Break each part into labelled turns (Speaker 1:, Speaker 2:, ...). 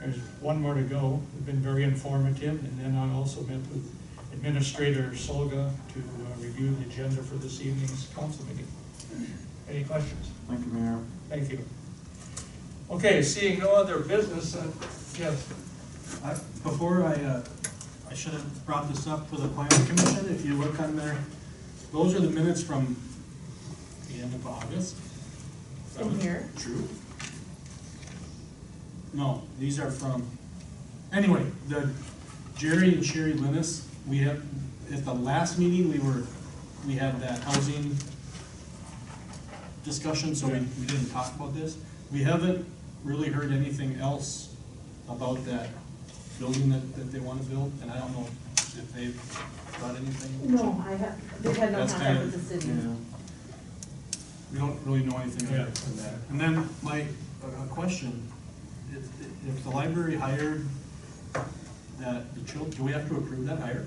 Speaker 1: There's one more to go. It's been very informative. And then I also met with Administrator Solga to uh, review the agenda for this evening's council meeting. Any questions?
Speaker 2: Thank you, Mayor.
Speaker 1: Thank you. Okay, seeing no other business, uh, yes,
Speaker 3: I- Before I, uh, I should have brought this up for the planning commission, if you look on there, those are the minutes from the end of August.
Speaker 4: From here?
Speaker 3: True. No, these are from, anyway, the Jerry and Sherry Linus, we have, at the last meeting, we were, we had that housing discussion, so we, we didn't talk about this. We haven't really heard anything else about that building that, that they wanna build, and I don't know if they've got anything.
Speaker 4: No, I have, they've had no
Speaker 3: That's
Speaker 4: contact
Speaker 3: kind of-
Speaker 4: with the city.
Speaker 2: Yeah.
Speaker 3: We don't really know anything
Speaker 1: Yeah.
Speaker 3: other than that. And then my, a a question, if, if the library hired that, the chil, do we have to approve that hire?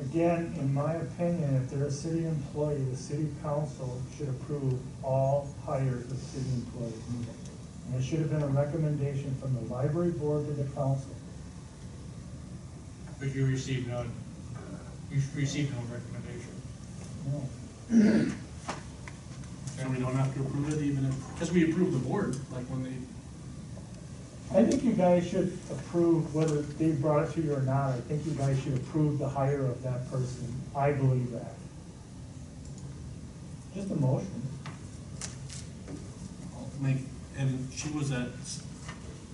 Speaker 5: Again, in my opinion, if they're a city employee, the city council should approve all hires of city employees. And it should have been a recommendation from the library board to the council.
Speaker 1: but you received none. You received no recommendation.
Speaker 5: No.
Speaker 3: So we don't have to approve it even if, because we approve the board, like when they,
Speaker 5: I think you guys should approve whether they brought it to you or not. I think you guys should approve the hire of that person. I believe that. Just a motion.
Speaker 3: make, and she was at step,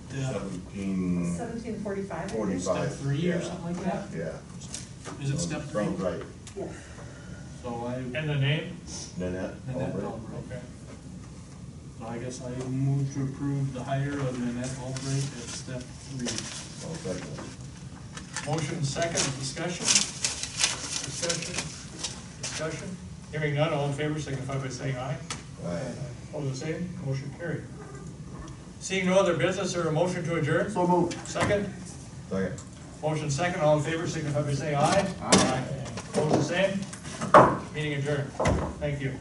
Speaker 2: Seventeen.
Speaker 4: Seventeen forty-five, I think.
Speaker 3: step
Speaker 2: Forty-five.
Speaker 3: three or
Speaker 2: yeah,
Speaker 3: something like that?
Speaker 2: Yeah.
Speaker 3: Is it step three?
Speaker 2: Sounds right.
Speaker 4: Yes.
Speaker 3: So I, and
Speaker 1: And the name?
Speaker 2: Nanette.
Speaker 3: that,
Speaker 2: Albright.
Speaker 3: Albright.
Speaker 1: Okay.
Speaker 3: so I guess I move to approve the hire of Nanette Albright at step three.
Speaker 2: I'll second it.
Speaker 1: Motion second, discussion? Discussion? Discussion? Hearing none, all in favor signify by saying aye.
Speaker 2: Aye.
Speaker 1: All the same, motion carried. Seeing no other business or a motion to adjourn? So moved. Second?
Speaker 2: Second.
Speaker 1: Motion second, all in favor signify by saying aye. Aye. All the same? Meeting adjourned. Thank you.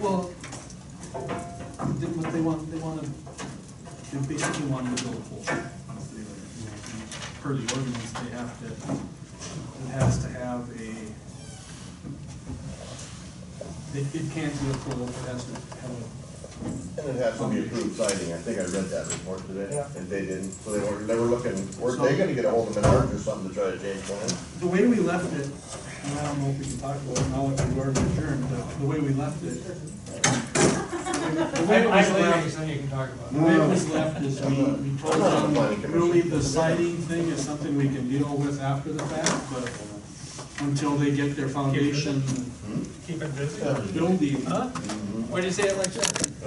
Speaker 3: Well, they, but they want, they wanna, they basically want to build a pool. Per the ordinance, they have to, it has to have a, it, it can't be a pool, it has to have a,
Speaker 2: And it has to be approved siding, I think I read that report today,
Speaker 5: Yeah.
Speaker 2: and they didn't, so they were, they were looking, were
Speaker 3: So-
Speaker 2: they gonna get a hold of Menards or something to try to change plans?
Speaker 3: the way we left it, and I don't know if we can talk about it now that we are adjourned, but the way we left it. The way it was left-
Speaker 1: then you can talk about
Speaker 3: The way it was left is we, we told them, really, the siding thing is something we can deal with after the fact, but until they get their foundation
Speaker 1: Keep it busy.
Speaker 3: building.
Speaker 1: Why'd you say it like that?